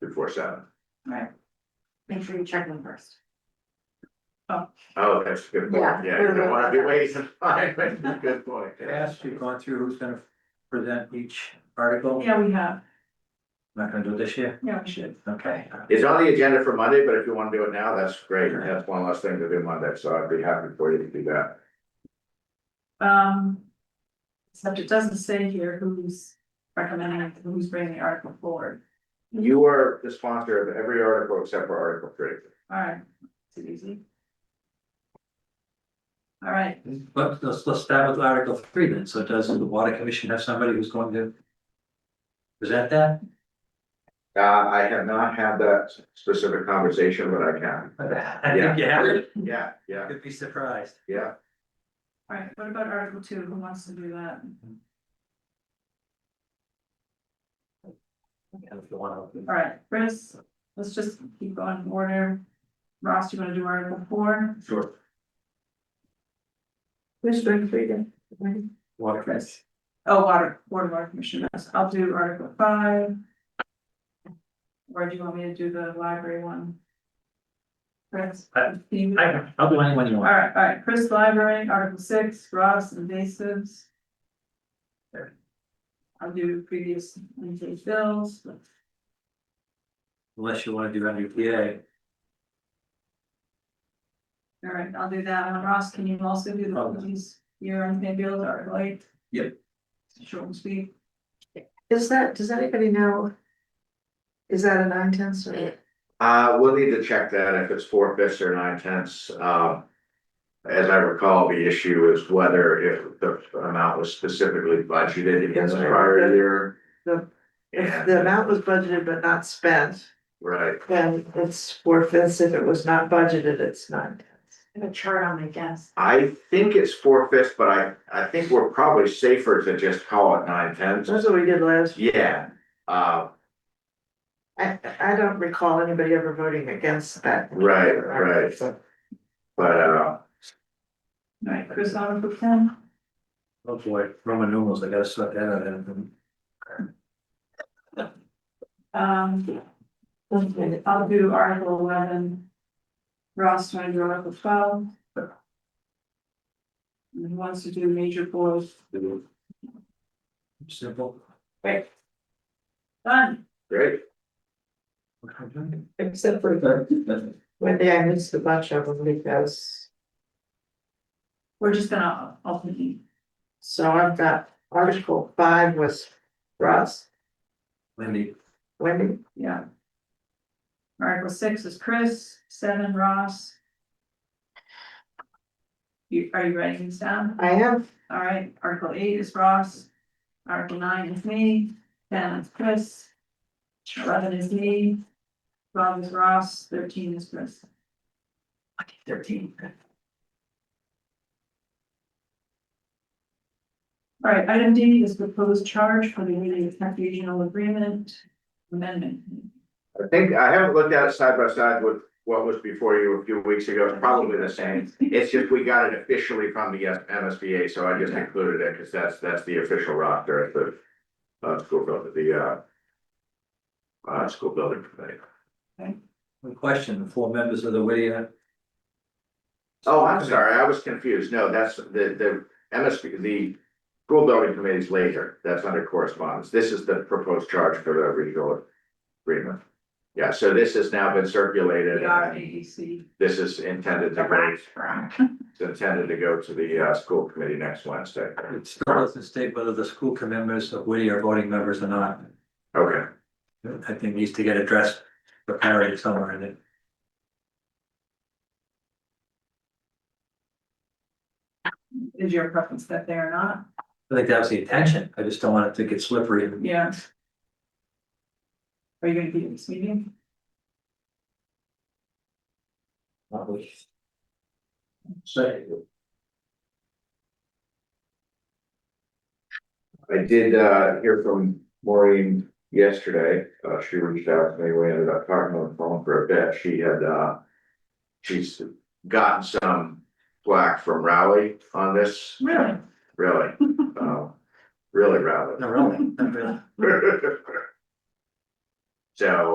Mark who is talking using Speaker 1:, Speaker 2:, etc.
Speaker 1: before seven.
Speaker 2: Right.
Speaker 3: Make sure you check them first.
Speaker 1: Oh, that's a good
Speaker 3: Yeah,
Speaker 1: point, yeah,
Speaker 3: we
Speaker 1: you
Speaker 3: were
Speaker 1: don't wanna be
Speaker 3: about that.
Speaker 1: wasting time, that's a good point.
Speaker 4: I asked you, gone through who's gonna present each article,
Speaker 2: Yeah, we have,
Speaker 4: not gonna do it this year,
Speaker 2: yeah, we should.
Speaker 4: okay?
Speaker 1: It's on the agenda for Monday, but if you wanna do it now, that's great, that's one less thing to do Monday, so I'd be happy for you to do that.
Speaker 2: Um. Except it doesn't say here who's recommending, who's bringing the article forward,
Speaker 1: You are the sponsor of every article except for Article three.
Speaker 2: alright, too easy. Alright,
Speaker 4: But let's, let's start with Article three then, so does the Water Commission have somebody who's going to present that?
Speaker 1: Uh, I have not had that specific conversation, but I can,
Speaker 4: I think you have it,
Speaker 1: yeah, yeah,
Speaker 4: could be surprised.
Speaker 1: yeah,
Speaker 2: alright, what about article two, who wants to do that?
Speaker 4: If you wanna-
Speaker 2: Alright, Chris, let's just keep going in order. Ross, you wanna do article four?
Speaker 4: Sure.
Speaker 2: Who's doing three then?
Speaker 4: Water Commission.
Speaker 2: Chris. Oh, water, water, water commission, yes, I'll do article five. Or do you want me to do the library one? Chris?
Speaker 4: I-
Speaker 2: can you do that?
Speaker 4: I- I'll do anyone you want.
Speaker 2: Alright, alright, Chris Library, Article six, Ross invasives.
Speaker 4: There.
Speaker 2: I'll do previous unpaid bills,
Speaker 4: Unless you wanna do MUPA,
Speaker 2: alright, I'll do that, and Ross, can you also do the
Speaker 4: Okay.
Speaker 2: police year unpaid bills, Article eight?
Speaker 4: Yep.
Speaker 2: Short and sweet,
Speaker 3: Is that, does anybody know? Is that a nine tenths or?
Speaker 1: uh, we'll need to check that if it's four fifths or nine tenths, um. As I recall, the issue is whether if the amount was specifically budgeted in the prior year.
Speaker 5: The- If
Speaker 1: And-
Speaker 5: the amount was budgeted but not spent,
Speaker 1: Right,
Speaker 5: then it's four fifths, if it was not budgeted, it's nine tenths.
Speaker 3: I have a chart on my desk.
Speaker 1: I think it's four fifths, but I, I think we're probably safer to just call it nine tenths.
Speaker 5: That's what we did last, year.
Speaker 1: Yeah, uh,
Speaker 5: I, I don't recall anybody ever voting against that.
Speaker 1: Right, right.
Speaker 5: So,
Speaker 1: but, uh,
Speaker 2: alright, Chris, Article ten,
Speaker 4: oh boy, Roman numerals, I gotta sort that out. and-
Speaker 2: um,
Speaker 5: okay.
Speaker 2: I'll do Article eleven. Ross, want to do Article twelve? And Who wants to do major boards,
Speaker 4: Simple.
Speaker 2: done,
Speaker 1: great.
Speaker 5: Except for the, one day I missed a bunch of them because,
Speaker 2: we're just gonna uh, ultimately
Speaker 5: so I've got article five was Russ,
Speaker 4: Wendy,
Speaker 5: Wendy,
Speaker 2: Yeah. Article six is Chris, seven Ross. You, are you writing these down?
Speaker 5: I have
Speaker 2: All right, article eight is Ross. Article nine is me, ten is Chris. Eleven is me. Twelve is Ross, thirteen is Chris. Okay, thirteen. All right, item D is proposed charge for the Union Tech Regional Agreement Amendment.
Speaker 1: I think, I haven't looked at it side by side with what was before you a few weeks ago, it's probably the same. It's just we got it officially from the uh, MSBA, so I just included it, cause that's, that's the official roster at the. Uh, school building, the, uh. Uh, school building committee.
Speaker 4: one question, the four members of the uh, Whittier.
Speaker 1: Oh, I'm sorry, I was confused, no, that's the, the MSB, the. School building committee's later, that's under correspondence, this is the proposed charge for the regional agreement. Yeah, so this has now been circulated.
Speaker 2: The
Speaker 1: and-
Speaker 2: R A E C.
Speaker 1: This is intended to go, it's intended to go to the uh school committee next Wednesday.
Speaker 4: It still doesn't state whether the school committee members of Whittier are voting members or not.
Speaker 1: Okay,
Speaker 4: I think needs to get addressed, but parried somewhere in it.
Speaker 2: Is your preference that they are not?
Speaker 4: I think that was the intention. I just don't want it to get slippery and
Speaker 2: Yeah. Are you gonna be at this meeting?
Speaker 4: not we. Say,
Speaker 1: I did uh hear from Maureen yesterday, uh she reached out to me, we ended up talking on the phone for a bit, she had uh. She's gotten some flack from Rowley on this,
Speaker 2: Really?
Speaker 1: really, uh, really Rowley.
Speaker 4: no, really, not really.
Speaker 1: So